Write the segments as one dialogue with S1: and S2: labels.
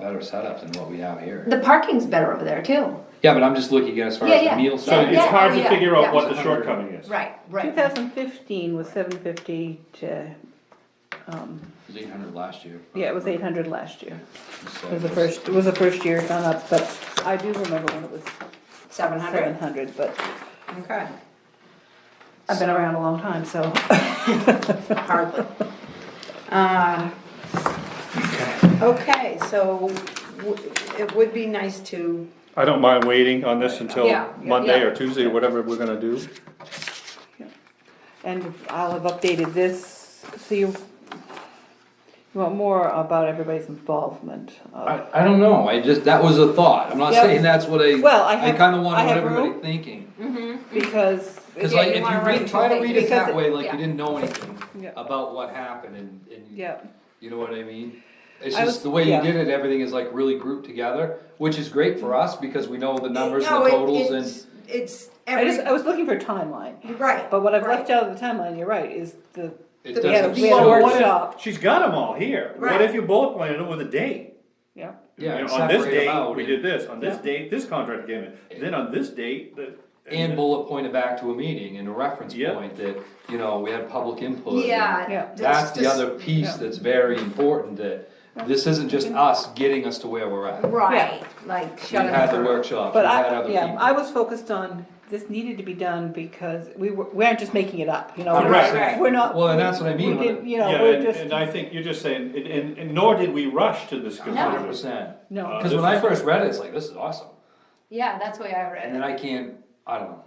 S1: better setup than what we have here.
S2: The parking's better over there too.
S1: Yeah, but I'm just looking at as far
S2: Yeah,
S1: as
S2: yeah.
S1: the meal
S2: So,
S1: side.
S2: yeah.
S3: It's hard to
S2: yeah,
S3: figure out
S2: yeah.
S3: what the shortcoming is.
S2: Right,
S4: 2015 was 750 to,
S1: It was eight hundred last year.
S4: yeah, it was 800 last year.
S1: So-
S4: It was the first, it was the first year it gone up, but I do remember when it was
S2: seven hundred,
S4: 700, but
S2: okay,
S4: I've been around a long time, so.
S2: hardly. Uh, Okay, so w- it would be nice to,
S5: I don't mind waiting on this until
S2: Yeah, yeah,
S5: Monday or
S2: yeah.
S5: Tuesday, whatever we're gonna do.
S4: And I'll have updated this, so you you want more about everybody's involvement. of-
S1: I, I don't know, I just, that was a thought, I'm not
S4: Yeah.
S1: saying that's what I,
S4: Well, I
S1: I
S4: have-
S1: kinda
S4: I
S1: wanted
S4: have
S1: everybody
S4: room.
S1: thinking.
S4: Because.
S1: Cause
S2: Yeah,
S1: like,
S2: you
S1: if you
S2: wanna
S1: read,
S2: write
S1: try to
S2: two
S1: read
S2: things,
S1: it that
S2: because
S1: way,
S2: it-
S1: like
S2: yeah.
S1: you didn't know anything
S4: Yeah.
S1: about what happened and, and.
S4: Yeah,
S1: You know what I mean? It's
S4: I
S1: just
S4: was-
S1: the way you
S4: yeah.
S1: did it, everything is like really grouped together, which is great for us because we know the numbers and
S2: No,
S1: the
S2: it-
S1: totals and.
S2: it's- It's
S4: I just, I
S2: every,
S4: was looking for a timeline,
S2: right.
S4: but what I've
S2: right.
S4: left out of the timeline, you're right, is the,
S1: It
S4: that we had a,
S1: doesn't
S4: we had a
S1: show.
S3: Well, what if-
S4: workshop,
S3: She's got them all here.
S2: Right.
S3: What if you bullet pointed it with a date?
S4: yeah.
S1: Yeah,
S3: You
S1: and
S3: know, On this
S1: separate 'em
S3: date,
S1: out
S3: we
S1: and-
S3: did this, on this
S4: Yeah.
S3: date, this contract came in, then on this date, the.
S1: And bullet pointed back to a meeting and a reference
S3: Yeah.
S1: point that, you know, we had public input. and-
S4: Yeah.
S2: Yeah.
S1: That's the
S2: just-
S1: other piece
S4: yeah.
S1: that's very important, that this isn't just us getting us to where we're at. We
S2: Right, like shut it
S1: had the
S2: down.
S1: workshops, we
S4: But
S1: had
S4: I,
S1: other
S4: yeah, I
S1: people.
S4: was focused on, this needed to be done because we were, we aren't just making it up, you know?
S3: Right,
S4: We're-
S2: right.
S4: We're not.
S1: Well, and that's what I mean
S4: We
S1: when
S4: didn't,
S1: it-
S4: you know,
S3: Yeah,
S4: we're
S3: and,
S4: just,
S3: and I think you're just saying, and- and, and nor did we rush to this
S1: Hundred
S3: conclusion.
S1: percent.
S4: no,
S3: Uh,
S1: Cause when I first read it, it's like, this is awesome.
S2: Yeah, that's the way I read
S1: And then I can't, I don't know,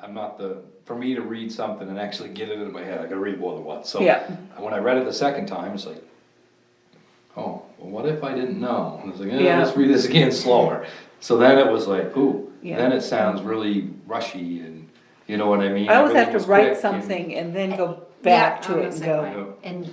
S1: I'm not the, for me to read something and actually get it into my head, I gotta read more than once, so.
S4: Yeah.
S1: When I read it the second time, it's like, oh, well, what if I didn't know? And I was like, eh,
S4: Yeah.
S1: let's read this again slower. So then it was like, ooh,
S4: Yeah.
S1: then it sounds really rushy and, you know what I mean?
S4: I always have
S1: Everything
S4: to
S1: was
S4: write
S1: quick and-
S4: something and then go
S2: Yeah,
S4: back
S2: I'm
S4: to
S2: the
S4: it and
S2: same
S4: go,
S2: way. And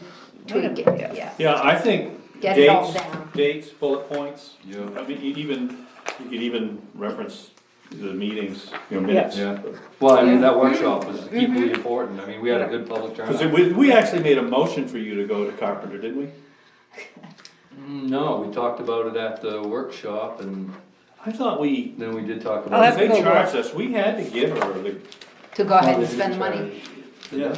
S2: tweak it, yeah.
S3: Yeah, I think
S2: Get it all
S3: dates,
S2: down.
S3: dates, bullet points.
S1: Yeah.
S3: I mean, you even, you could even reference the meetings, you know, minutes.
S1: Yeah, well, I mean, that workshop was
S4: Mm-hmm.
S1: equally important, I mean, we had a good public
S3: Cause
S1: turnout.
S3: we, we actually made a motion for you to go to Carpenter, didn't we?
S1: Mm, No, we talked about it at the workshop and
S3: I thought we,
S1: then we did talk
S4: I'll
S1: about.
S4: have to
S3: they
S1: it.
S4: go look.
S3: charged us, we had to give her the.
S2: To go ahead
S1: They
S2: and
S1: did
S2: spend the money.
S1: charge.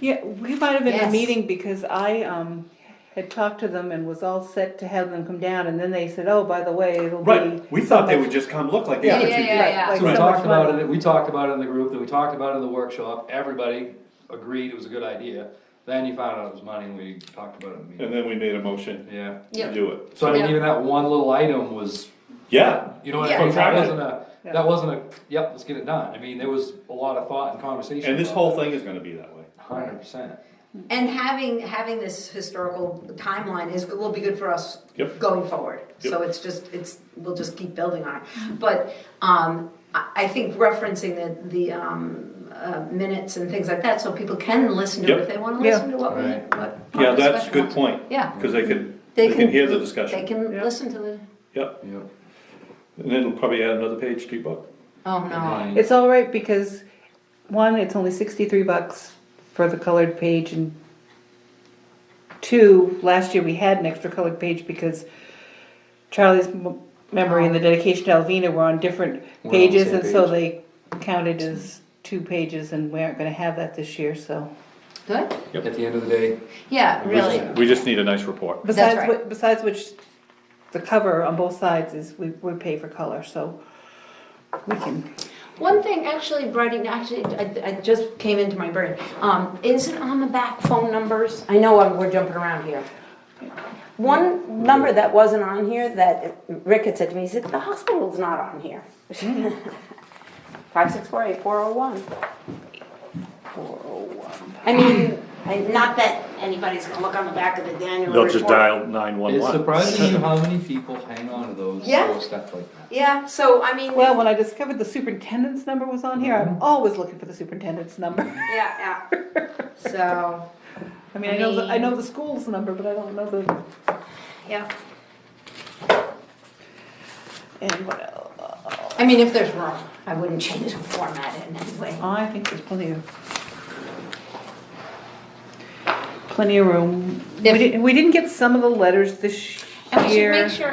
S3: Yeah.
S4: yeah, we might have been in a
S2: Yes.
S4: meeting because I, um, had talked to them and was all set to have them come down and then they said, oh, by the way, it'll be.
S3: Right, we thought they
S4: so
S3: would just come look like the
S2: Yeah,
S3: other two
S2: yeah, yeah,
S3: did.
S4: Right,
S2: yeah.
S4: like-
S1: So we
S4: so
S1: talked
S4: much
S1: about
S4: money.
S1: it, we talked about it in the group, then we talked about it in the workshop, everybody agreed it was a good idea. Then you found out it was money and we talked about it in the meeting,
S3: And then we made a motion
S1: yeah.
S3: to do it.
S1: So I mean,
S2: Yeah.
S1: even that one little item was,
S3: Yeah,
S1: you know what I
S2: Yeah.
S1: mean, that
S3: Contracted.
S1: wasn't a,
S4: Yeah.
S1: that wasn't a, yep, let's get it done, I mean, there was a lot of thought and conversation.
S3: and this whole thing is gonna be that way.
S1: Hundred percent,
S2: And having, having this historical timeline is, will be good for us
S3: Yep.
S2: going forward. So it's just, it's, we'll just keep building on it. But, um, I, I think referencing the, the, um, uh, minutes and things like that, so people can listen to it if
S3: Yep.
S2: they wanna
S4: Yeah.
S2: listen to what we,
S1: Right.
S2: what.
S3: Yeah,
S2: our
S3: that's a
S2: discussion
S3: good
S2: was.
S3: point.
S2: Yeah.
S3: Cause they could, they can hear the discussion.
S2: They can
S4: Yeah.
S2: listen to the,
S3: Yep,
S1: yep.
S3: and it'll probably add another page to your book.
S2: oh no,
S1: And
S4: It's all right because, one, it's only sixty-three bucks for the colored page and two, last year we had an extra colored page because Charlie's m- memory and the dedication to Alvina were on different
S1: Oh. We're on the
S4: pages
S1: same
S4: and so
S1: page.
S4: they counted as two pages and we aren't gonna have that this year, so.
S2: good,
S1: At the end of the day,
S2: yeah, really,
S3: We just need a nice report.
S4: Besides,
S2: right.
S4: whi- besides which, the cover on both sides is, we, we pay for color, so we can,
S2: One thing, actually, Brady, actually, I, I just came into my brain, um, isn't on the back phone numbers, I know I'm- we're jumping around here. One number that wasn't on here that Rick had said to me, he said, the hospital's not on here. Five, six, four, eight, four, oh, one.
S4: four oh one.
S2: I mean, I- not that anybody's gonna look on the back of the Daniel report.
S5: They'll just dial nine one
S1: it's
S5: one.
S1: surprising you how many people hang on to those
S2: Yeah.
S1: little stuff like that.
S2: Yeah, so I mean,
S4: Well,
S2: yeah,
S4: when I discovered the superintendent's number was on here, I'm always looking for the superintendent's number.
S2: yeah, so,
S4: I mean, I know, the- I know the school's number, but I don't know the,
S2: yeah.
S4: and what else?
S2: I mean, if there's room, I wouldn't change the format in any way.
S4: I think there's plenty of, plenty of room. We
S2: If-
S4: didn't, we didn't get some of the letters this year.
S2: And we should make sure